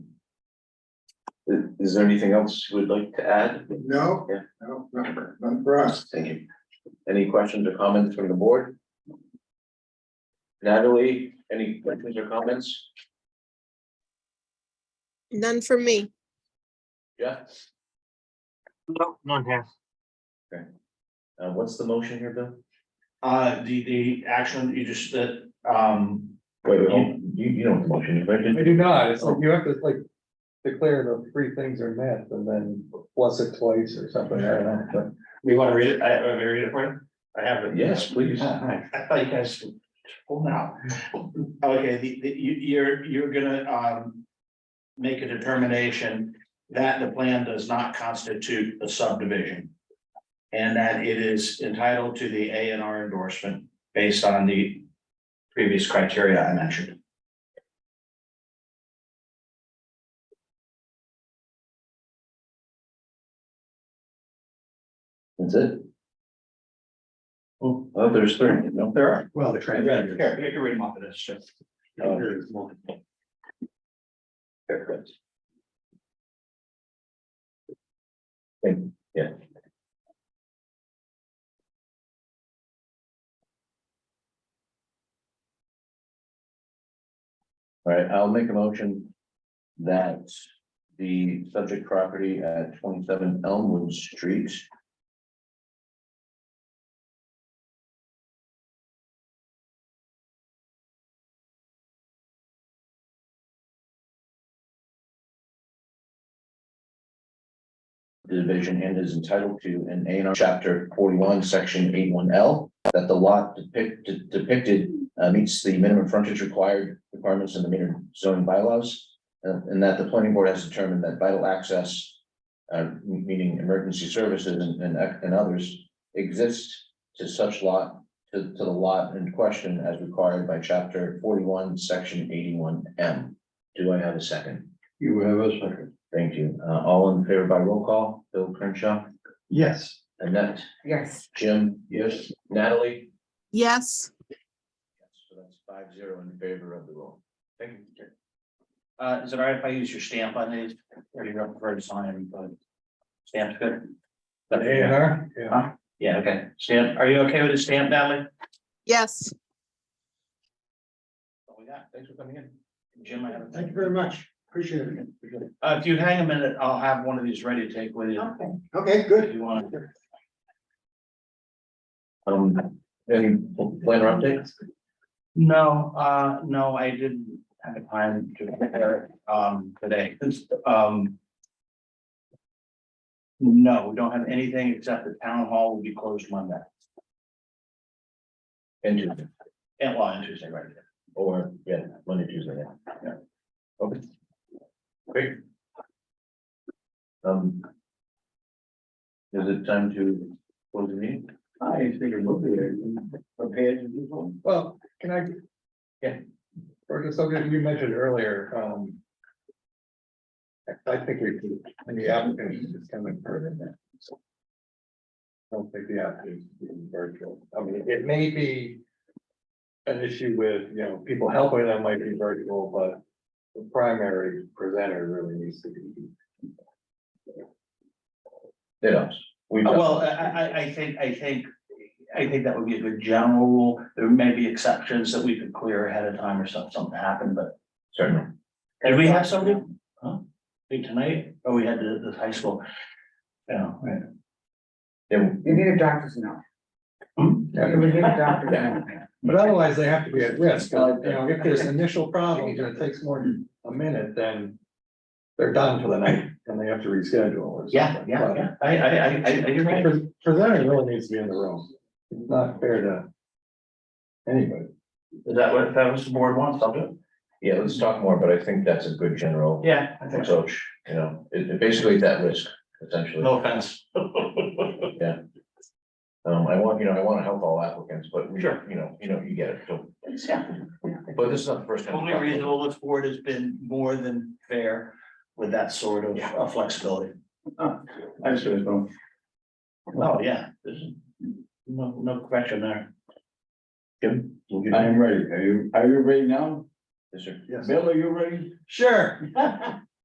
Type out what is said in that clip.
Is, is there anything else you would like to add? No, Yeah. no, not for, not for us. Thank you. Any questions or comments from the board? Natalie, any questions or comments? None for me. Jeff, No, none here. uh, what's the motion here, Bill? Uh, the, the action you just, that, um, Wait, wait, hold on. you, you don't have the motion, right? I do not, it's like you have to like declare the three things are met and then plus it twice or something, I don't know, but. we want to read it, I, I read it for you? I have it. Yes, please. I thought you guys, hold now. Okay, the, the, you, you're, you're gonna, um, make a determination that the plan does not constitute a subdivision. And that it is entitled to the A and R endorsement based on the previous criteria I mentioned. That's it? Oh, oh, there's three, no? There are. Well, the Here, here, you can read them off of this, sure. Oh. Very good. Thank you, yeah. All right, I'll make a motion that the subject property at twenty-seven Elmwood Street division and is entitled to an A and R chapter forty-one, section eighty-one L. That the lot depicted depicted uh, meets the minimum frontage required requirements in the minor zoning bylaws. uh, and that the planning board has determined that vital access. Uh, meaning emergency services and and and others exist to such lot, to to the lot in question as required by chapter forty-one, section eighty-one M. Do I have a second? You have a second. Thank you. Uh, all in favor by roll call, Bill Crenshaw, Yes. Annette, Yes. Jim? Yes. Natalie? Yes. Yes, So that's five zero in favor of the roll. Thank you. Uh, is it all right if I use your stamp on these? Or you prefer to sign, but stamp's good? A&R? Yeah. Yeah, okay. Stamp, are you okay with the stamp, Natalie? Yes. Oh, yeah, thanks for coming in. Jim, I have. a- Thank you very much. Appreciate it. Uh, if you hang a minute, I'll have one of these ready to take with you Okay. Okay, good. if you want. Um, any planner updates? No, uh, no, I didn't have the time to prepare it, um, today, It's, um. No, we don't have anything except the town hall will be closed Monday, And Tuesday, and well, and Tuesday, right? or, yeah, Monday, Tuesday, yeah, yeah. Okay. Great. Um. Is it time to close the meeting? I figured we'll be there, prepared to do one. Well, can I? Yeah. Or just something you mentioned earlier, um. I- I think we, can- and the applicant is just coming further than that. so. I Don't think the applicant is being virtual, I mean, it may be. An issue with, you know, people helping them might be virtual, but the primary presenter really needs to be. It does. We've done- Uh, Well, I, I, I think, I think, I think that would be a good general rule. There may be exceptions that we could clear ahead of time or something, something happened, but. Certainly. Did we have somebody? Huh? Think tonight? Oh, we had the, the high school. Yeah, right. Yeah, You need a doctor's note. Hmm? You would need a doctor's note. But otherwise, they have to be at risk, uh, you know, if there's initial problems and it takes more than a minute, then. They're done for the night and they have to reschedule or something. Yeah, yeah, yeah. I, I, I, I, I, you're right. Pre- Presenter really needs to be in the room, it's not fair to. Anybody. Is that what, if that was the board wants, I'll do it. Yeah, let's talk more, but I think that's a good general Yeah, I think so. approach, you know, it, it basically is at risk, essentially. No offense. Um, I want, you know, I want to help all applicants, but we, Sure. you know, you know, you get it, so, Yeah. but this is not the first time. Only reason all this board has been more than fair with that sort of uh, flexibility. I see it going. Oh, yeah, there's no, no question there. I am ready, are you, are you ready now? Yes, sir. Yes. Bill, are you ready? Sure.